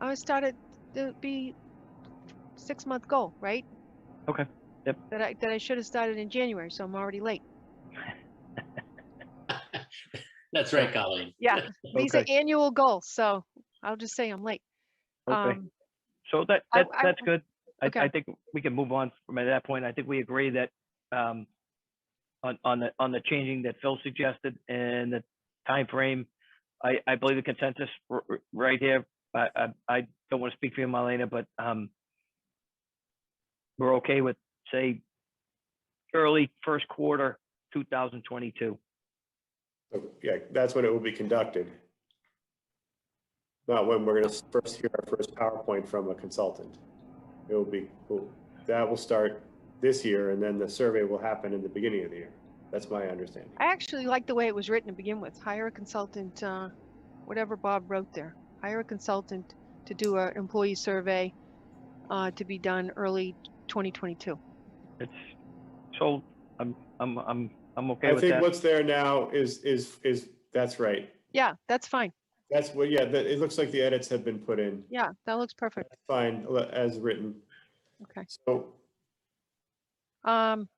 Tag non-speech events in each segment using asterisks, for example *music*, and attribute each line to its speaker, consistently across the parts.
Speaker 1: always thought it, it would be six month goal, right?
Speaker 2: Okay, yep.
Speaker 1: That I, that I should have started in January, so I'm already late.
Speaker 3: That's right, Colleen.
Speaker 1: Yeah, *laughs* these are
Speaker 2: Okay.
Speaker 1: annual goals, so I'll just say I'm late.
Speaker 2: Okay.
Speaker 1: Um,
Speaker 2: So that,
Speaker 1: I-
Speaker 2: that,
Speaker 1: I-
Speaker 2: that's good. I,
Speaker 1: okay.
Speaker 2: I think we can move on from that point. I think we agree that, um, on, on the, on the changing that Phil suggested and the time frame, I, I believe the consensus r- r- right here, I, I, I don't want to speak for you, Marlena, but, um, we're okay with, say, early first quarter, two thousand twenty-two.
Speaker 4: So, Yeah, that's when it will be conducted. Not when we're gonna first hear our first PowerPoint from a consultant. It will be, well, that will start this year, and then the survey will happen in the beginning of the year. That's my understanding.
Speaker 1: I actually like the way it was written to begin with. Hire a consultant, uh, whatever Bob wrote there. Hire a consultant to do a employee survey, uh, to be done early 2022.
Speaker 2: It's, so, I'm, I'm, I'm, I'm okay
Speaker 4: I
Speaker 2: with
Speaker 4: think
Speaker 2: that.
Speaker 4: what's there now is, is, is, that's right.
Speaker 1: Yeah, that's fine.
Speaker 4: That's what, yeah, that, it looks like the edits have been put in.
Speaker 1: Yeah, that looks perfect.
Speaker 4: Fine, le- as written.
Speaker 1: Okay.
Speaker 4: So
Speaker 1: Um,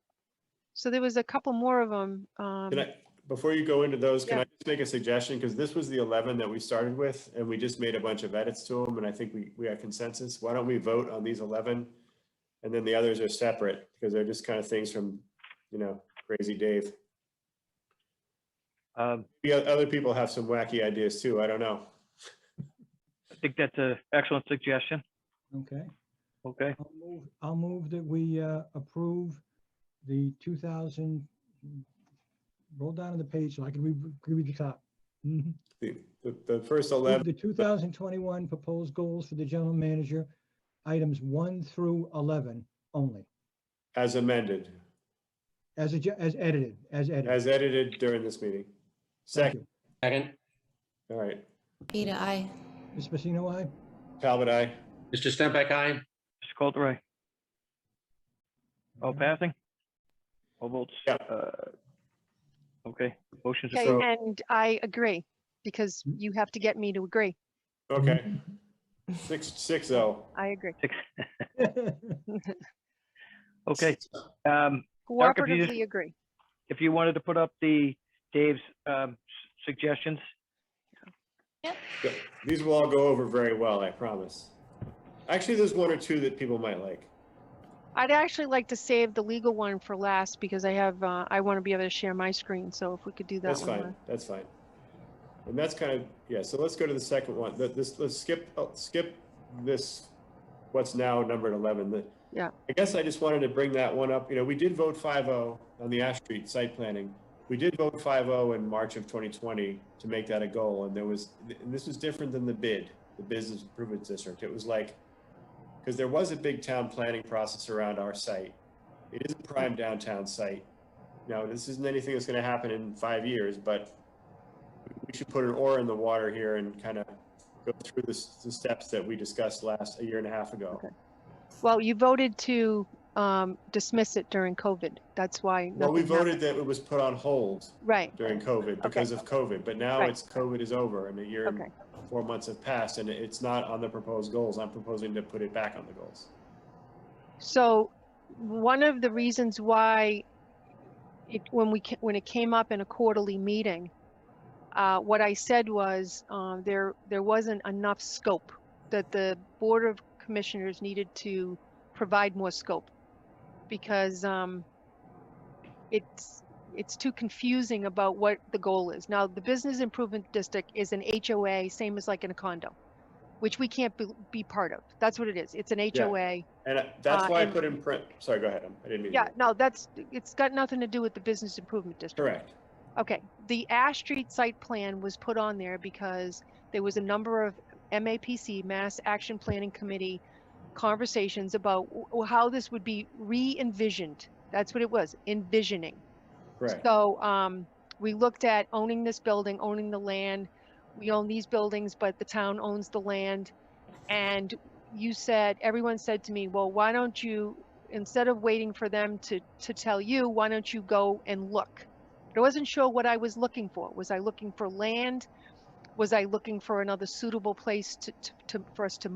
Speaker 1: so there was a couple more of them. Um,
Speaker 4: Can I, before you go into those, can
Speaker 1: Yeah.
Speaker 4: I just make a suggestion? Because this was the 11 that we started with, and we just made a bunch of edits to them, and I think we, we have consensus. Why don't we vote on these 11? And then the others are separate, because they're just kind of things from, you know, crazy Dave.
Speaker 2: Um,
Speaker 4: Yeah, other people have some wacky ideas too, I don't know.
Speaker 2: I think that's an excellent suggestion,
Speaker 5: Okay,
Speaker 2: okay?
Speaker 5: I'll move, I'll move that we uh, approve the 2000, roll down to the page so I can read, read the top. Mhm.
Speaker 4: The, the- the first
Speaker 5: Approve
Speaker 4: 11,
Speaker 5: The 2021 proposed goals for the general manager, items 1 through 11 only,
Speaker 4: as amended,
Speaker 5: as, adj- as edited, as edited.
Speaker 4: as edited during this meeting.
Speaker 5: Thank
Speaker 4: Second,
Speaker 5: you.
Speaker 3: Second,
Speaker 4: all right,
Speaker 6: Peter, I.
Speaker 5: Ms. Pacino, aye?
Speaker 4: Talbot, I,
Speaker 3: Mr. Stempak, aye.
Speaker 2: Mr. Coulter, all
Speaker 5: Okay.
Speaker 2: passing? All votes?
Speaker 4: Yeah.
Speaker 2: uh, Okay, motion's
Speaker 1: Okay,
Speaker 2: approved.
Speaker 1: and I agree, because
Speaker 4: Mm.
Speaker 1: you have to get me to agree.
Speaker 4: okay. Six, six oh.
Speaker 1: I agree.
Speaker 5: Mm-hmm. *laughs*
Speaker 2: Okay, um, Erica, if you just-
Speaker 1: Cooperatively agree.
Speaker 2: if you wanted to put up the Dave's um, s- suggestions,
Speaker 4: These will all go over very well, I promise. Actually, there's one or two that people might like.
Speaker 1: I'd actually like to save the legal one for last, because I have, uh, I want to be able to share my screen, so if we could do that
Speaker 4: That's
Speaker 1: one. last.
Speaker 4: fine, that's fine. And that's kind of, yeah, so let's go to the second one. Let- This, let's skip, oh, skip this, what's now numbered 11. The-
Speaker 1: Yeah.
Speaker 4: I guess I just wanted to bring that one up. You know, we did vote 5-0 on the Ash Street site planning. We did vote 5-0 in March of 2020 to make that a goal, and there was, and this was different than the bid, the Business Improvement District. It was like, because there was a big town planning process around our site. It is a prime downtown site. Now, this isn't anything that's going to happen in five years, but we should put an oar in the water here and kind of go through the, s- the steps that we discussed last, a year and a half ago.
Speaker 1: Okay. Well, you voted to um, dismiss it during COVID. That's why.
Speaker 4: Well, we
Speaker 1: nothing happened.
Speaker 4: voted that it was put on hold
Speaker 1: Right,
Speaker 4: during COVID because of COVID, but now
Speaker 1: Right.
Speaker 4: it's, COVID is over and a year and
Speaker 1: okay,
Speaker 4: four months have passed and it's not on the proposed goals. I'm proposing to put it back on the goals.
Speaker 1: so one of the reasons why it, when we, ca- when it came up in a quarterly meeting, uh, what I said was, um, there, there wasn't enough scope, that the Board of Commissioners needed to provide more scope. Because, um, it's, it's too confusing about what the goal is. Now, the Business Improvement District is an HOA, same as like in a condo, which we can't be, be part of. That's what it is. It's an HOA.
Speaker 4: And uh, that's
Speaker 1: Uh,
Speaker 4: why I
Speaker 1: and-
Speaker 4: put in print, sorry, go ahead. I'm- I didn't mean. to-
Speaker 1: Yeah, no, that's, it's got nothing to do with the Business Improvement District.
Speaker 4: Correct.
Speaker 1: Okay, the Ash Street site plan was put on there because there was a number of MAPC, Mass Action Planning Committee, conversations about w- w- how this would be re-envisioned. That's what it was, envisioning.
Speaker 4: Correct.
Speaker 1: So, um, we looked at owning this building, owning the land. We own these buildings, but the town owns the land. And you said, everyone said to me, well, why don't you, instead of waiting for them to, to tell you, why don't you go and look? But I wasn't sure what I was looking for. Was I looking for land? Was I looking for another suitable place to, to, to, for us to